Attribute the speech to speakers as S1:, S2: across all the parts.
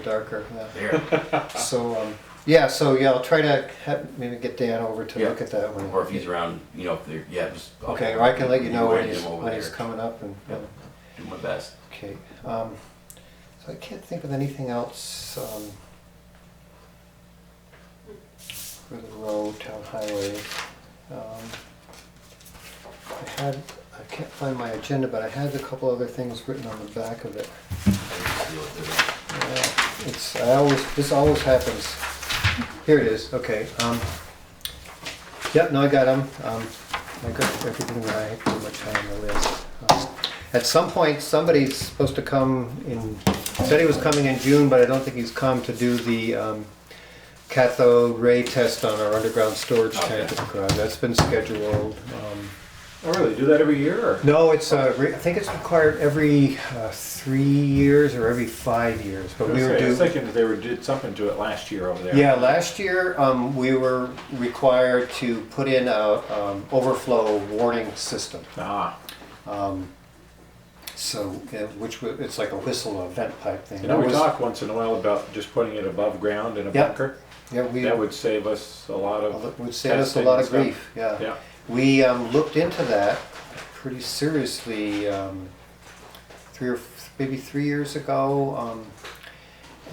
S1: darker. yeah.
S2: there.
S1: So, um, yeah, so yeah, I'll try to ha- maybe get Dan over to
S2: Yeah.
S1: look at that one.
S2: Or if he's around, you know, if they're, yeah, just. I'll-
S1: Okay, or I can let you know when
S2: Get
S1: he's,
S2: him over
S1: when he's
S2: there.
S1: coming up and,
S2: Yep. Do my best.
S1: okay. Um, so I can't think of anything else, um, for the road, town highway. Um, I had, I can't find my agenda, but I had a couple other things written on the back of it.
S3: Oh,
S1: Yeah, It's, I always, this always happens. Here it is, okay. um, Yep, no, I got them. I got everything that I pretty much had on the list. Um, At some point, somebody's supposed to come in, said he was coming in June, but I don't think he's come to do the um, cathode ray test on our underground storage tank at the garage. That's been scheduled. um,
S3: Oh, really? Do that every year? Or?
S1: no, it's, uh, re- I think it's required every uh, three years or every five years, but we were
S3: Okay, I was
S1: due.
S3: thinking they were did something to it last year over there.
S1: Yeah, last year, um, we were required to put in a, um, overflow warning system.
S3: Ah,
S1: So, uh, which, wa- it's like a whistle, a vent pipe thing.
S3: you know,
S1: That
S3: we
S1: was-
S3: talk once in a while about just putting it above ground in a
S1: Yeah.
S3: bunker.
S1: Yeah, we,
S3: That would save us a lot of.
S1: would save us a
S3: testing
S1: lot
S3: and
S1: of
S3: stuff.
S1: grief, yeah.
S3: Yeah.
S1: We um, looked into that pretty seriously um, three or maybe three years ago, um,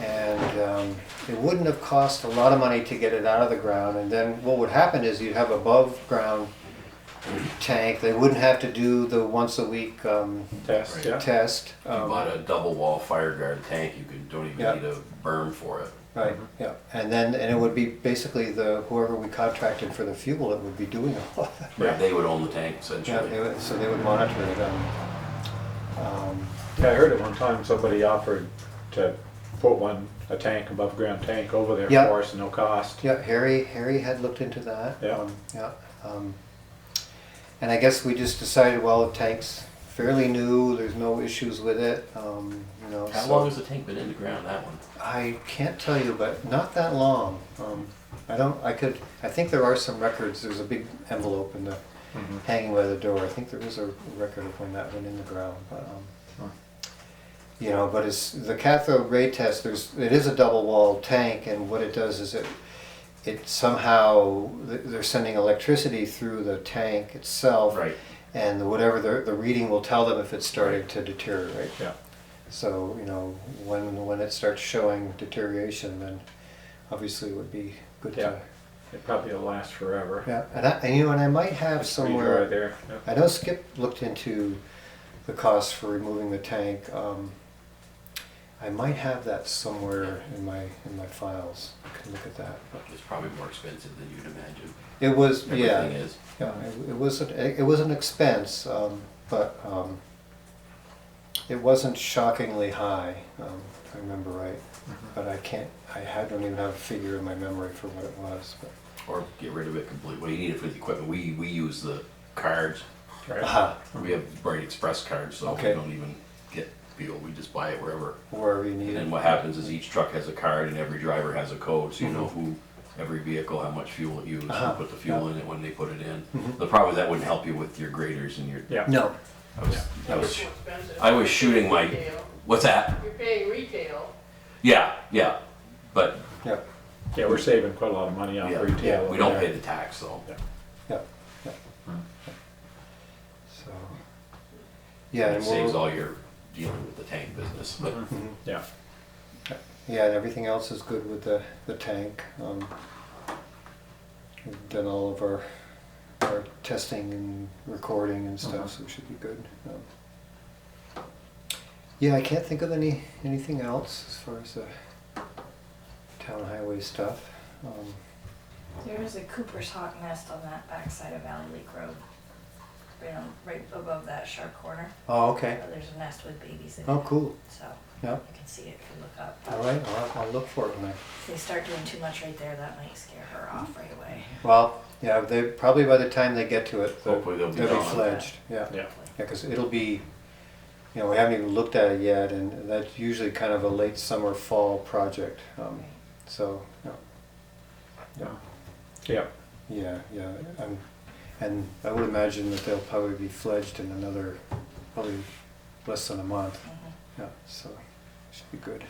S1: and um, it wouldn't have cost a lot of money to get it out of the ground. And then what would happen is you'd have above ground tank. They wouldn't have to do the once a week um,
S3: Test.
S2: Right.
S3: Yeah.
S1: test.
S2: If you
S1: Um,
S2: bought a double wall fire guard tank, you could, don't even
S1: Yeah.
S2: need a berm for it.
S1: Um, Right, yeah, and then, and it would be basically the, whoever we contracted for the fuel, it would be doing all of that.
S3: Yeah.
S2: They would own the tank
S1: Yeah, they
S2: essentially.
S1: would, so they would monitor it. um, um,
S3: Yeah, I heard at one time somebody offered to put one a tank above ground tank over there
S1: Yeah.
S3: for us, no cost.
S1: Yeah, Harry, Harry had looked into that.
S3: Yeah.
S1: Um, Yeah. um, And I guess we just decided, well, the tank's fairly new, there's no issues with it, um, you know.
S2: How
S1: so-
S2: long has the tank been in the ground, that one?
S1: I can't tell you, but not that long. Um, I don't, I could, I think there are some records, there's a big envelope in the,
S3: Mhm.
S1: hanging by the door. I think there is a record of when that went in the ground, but,
S3: Huh.
S1: um, you know, but it's, the cathode ray test, there's, it is a double walled tank and what it does is it, it somehow, th- they're sending electricity through the tank itself.
S2: Right.
S1: And whatever the, the reading will tell them if it's starting to deteriorate.
S3: Yeah.
S1: So, you know, when, when it starts showing deterioration, then obviously it would be good
S3: Yeah.
S1: to.
S3: It probably will last forever.
S1: Yeah, and I, and, you know, and I might have
S3: It's pretty dry
S1: somewhere,
S3: there. Yeah.
S1: I know Skip looked into the cost for removing the tank. Um, I might have that somewhere in my, in my files. I can look at that.
S2: It's probably more expensive than you'd imagine.
S1: It was,
S2: Everything
S1: yeah,
S2: is.
S1: yeah, it it was, an- it was an expense, um, but, um, it wasn't shockingly high, um, if I remember right. But I can't, I had- don't even have a figure in my memory for what it was, but.
S2: Or get rid of it completely. What do you need it for the equipment? We, we use the cards.
S3: Right.
S1: Aha,
S2: We have Bright Express cards, so we
S1: Okay.
S2: don't even get fuel. We just buy it wherever.
S1: wherever you need
S2: And then
S1: it.
S2: what happens is each truck has a card and every driver has a code, so you know who, every vehicle, how much fuel it used, who
S1: Mm-hmm. Uh-huh.
S2: put the fuel in it, when they put it in.
S1: Mhm.
S2: The problem is that wouldn't help you with your graders and your,
S3: Yeah.
S1: No,
S2: I was, I
S4: It's
S2: was,
S4: more expensive.
S2: I was shooting my-
S4: Retail.
S2: what's that?
S4: You're paying retail.
S2: Yeah, yeah, but
S1: yeah,
S3: Yeah, we're saving quite a lot of money on
S2: Yeah.
S3: retail.
S1: Yeah,
S3: over
S2: we don't
S3: there.
S2: pay the tax, though.
S1: yeah, yeah.
S3: Hmm.
S1: So, yeah,
S2: It
S1: and
S2: saves
S1: we'll,
S2: all your dealing with the tank business, but
S1: Mhm.
S3: Yeah.
S1: yeah, and everything else is good with the, the tank. Um, We've done all of our, our testing and recording and stuff, so it should be good. Um, Yeah, I can't think of any, anything else as far as the town highway stuff. Um,
S5: There is a Cooper's Hawk nest on that backside of Valley Lake Road. Right on, right above that sharp corner.
S1: Oh, okay,
S5: There's a nest with babies in it.
S1: oh, cool,
S5: So
S1: yeah,
S5: you can see it if you look
S1: all
S5: up.
S1: right, I'll, I'll look for it when I
S5: If they start doing too much right there, that might scare her off right away.
S1: Well, yeah, they, probably by the time they get to it, they'll
S2: Hopefully they'll be gone.
S1: fledged, yeah. Yeah,
S3: Yeah.
S1: because it'll be, you know, we haven't even looked at it yet, and that's usually kind of a late summer, fall project, um, so, yeah.
S3: Yeah. Yeah.
S1: Yeah, yeah, um, and I would imagine that they'll probably be fledged in another, probably less than a month,
S5: Mhm.
S1: yeah, so, should be good.